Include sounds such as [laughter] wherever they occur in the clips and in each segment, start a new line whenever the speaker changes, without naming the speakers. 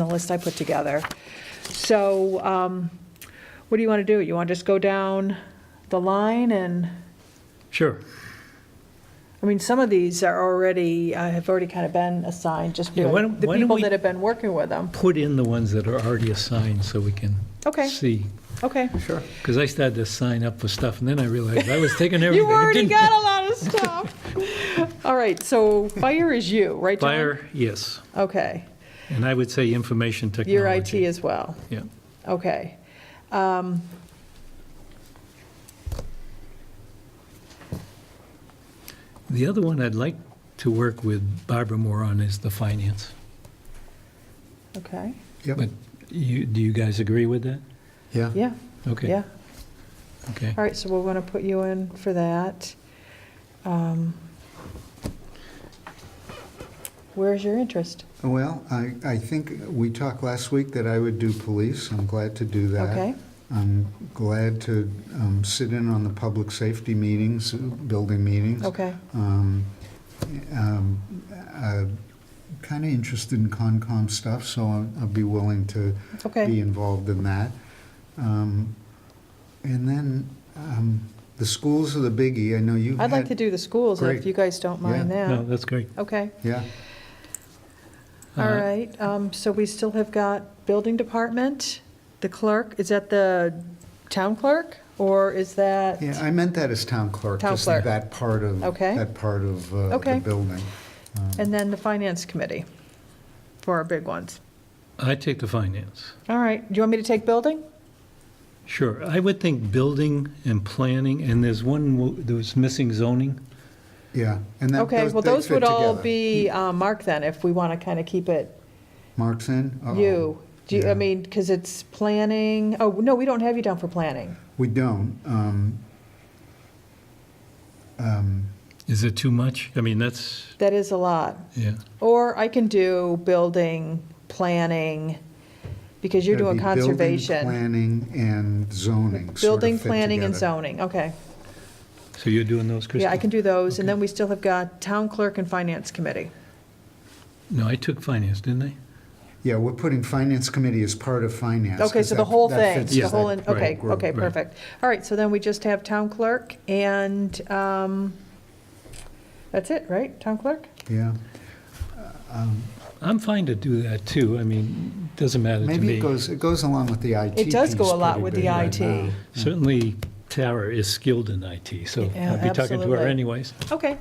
the list I put together. So um, what do you want to do? You want to just go down the line and,
Sure.
I mean, some of these are already, uh, have already kind of been assigned, just
Yeah, why
the
don't- why don't
people
we-
that have been working with them.
Put in the ones that are already assigned so we can
Okay.
see.
Okay.
Sure.
Because I started to sign up for stuff and then I realized I was taking everything.
[laughs] You already
Didn't-
got a lot of stuff. [laughs] All right, so fire is you, right, John?
Fire, yes.
Okay.
And I would say information technology.
Your IT as well.
Yeah.
Okay.
The other one I'd like to work with Barbara more on is the finance.
Okay.
Yep.
But you, do you guys agree with that?
Yeah.
Yeah,
Okay.
yeah.
Okay.
All right, so we're going to put you in for that. Um, Where's your interest?
Well, I, I think we talked last week that I would do police. I'm glad to do that.
Okay,
I'm glad to um, sit in on the public safety meetings, building meetings.
okay,
Um, um, I'm kind of interested in Concom stuff, so I'll, I'll be willing to be
okay.
involved in that. Um, and then um, the schools are the biggie. I know you.
I'd like to do the schools, if
Great.
you guys don't mind
No,
that.
that's great.
Okay,
Yeah.
all
Uh,
right, um, so we still have got building department, the clerk, is that the town clerk? Or is that?
Yeah, I meant that as town clerk.
Town
just
clerk.
That part of,
Okay.
that part of uh,
Okay.
the building. Um,
And then the finance committee for our big ones.
I take the finance.
All right, do you want me to take building?
Sure. I would think building and planning, and there's one wo- that was missing zoning.
Yeah, and that,
Okay,
those,
well,
they
those
fit
would all
together.
be uh, marked then, if we want to kind of keep it
Mark's in? Uh-oh.
you. Do you, I
Oh, Yeah.
mean, because it's planning, oh, no, we don't have you down for planning.
We don't. um, um,
Is it too much? I mean, that's,
That is a lot.
yeah.
Or I can do building, planning, because you're
that'd
doing
be building,
conservation.
Planning and zoning sort of
Building,
fit
planning, and
together.
zoning, okay.
So you're doing those, Kristen?
Yeah, I can do those, and then we still have got town clerk and finance committee.
No, I took finance, didn't I?
Yeah, we're putting finance committee as part of finance.
Okay,
'cause
so the
that-
whole
that
thing,
fits
the
Yeah,
that
whole, in- okay,
group.
okay,
right.
perfect. All right, so then we just have town clerk and, um, that's it, right? Town clerk?
Yeah,
I'm fine to do that, too. I mean, doesn't matter to
maybe it
me.
goes, it goes along with the IT.
It does
piece
go a lot
pretty
with the
big right
IT.
now.
Certainly Tara is skilled in IT, so
Yeah,
I'll be talking to her
absolutely.
anyways.
Okay.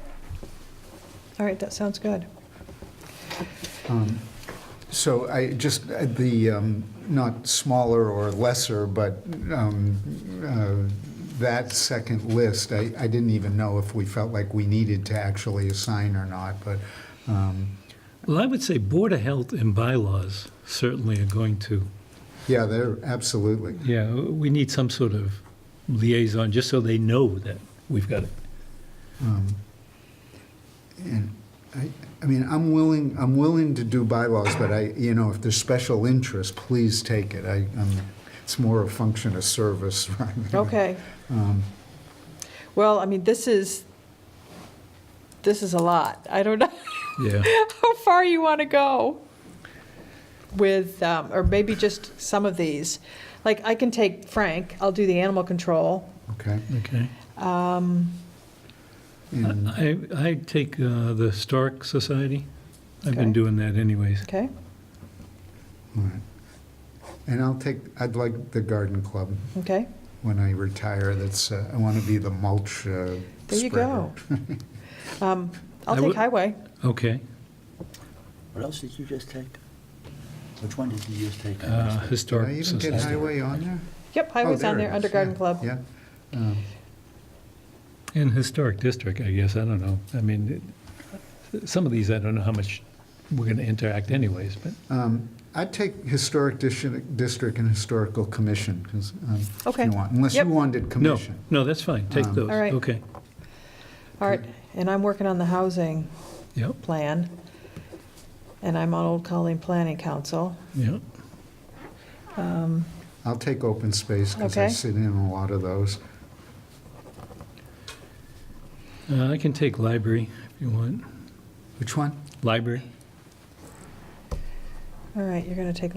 All right, that sounds good.
Um, So I just, uh, the, um, not smaller or lesser, but um, uh, that second list, I I didn't even know if we felt like we needed to actually assign or not, but, um,
Well, I would say Board of Health and bylaws certainly are going to,
yeah, they're, absolutely.
yeah, we need some sort of liaison, just so they know that we've got it.
Um, And I, I mean, I'm willing, I'm willing to do bylaws, but I, you know, if there's special interest, please take it. I, I'm- it's more a function of service [laughs] rather than-
Okay.
Um,
Well, I mean, this is, this is a lot. I don't [laughs] know
Yeah.
how far you want to go with, um, or maybe just some of these. Like, I can take Frank, I'll do the animal control. Um,
Okay.
Okay.
And-
I, I take uh, the Historic Society. I've
Okay.
been doing that anyways.
Okay,
All right. And I'll take, I'd like the garden club
okay.
when I retire, that's, uh, I want to be the mulch uh,
There you
spreader.
go. [laughs] Um, I'll
I
take
would-
highway.
Okay.
What else did you just take? Which one did you just take?
Uh,
Did I
Historic
even get
Society.
highway on there?
Yep,
Oh,
highway's on
it
there,
is.
under garden
Yeah,
club.
Yeah. Um,
And Historic District, I guess, I don't know. I mean, it- some of these, I don't know how much we're going to interact anyways, but
um, I'd take historic dis- district and historical commission, 'cause, um, if
Okay.
you want, unless you
Yep.
wanted
no,
commission.
no, that's fine. Take
Um,
those.
All right.
Okay.
All right, and I'm working on the housing
Yep,
plan, and I'm on Old Colony Planning Council.
yep.
I'll take open space because I
Okay.
sit in a lot of those.
Uh, I can take library if you want.
Which one?
Library.
All right, you're going to take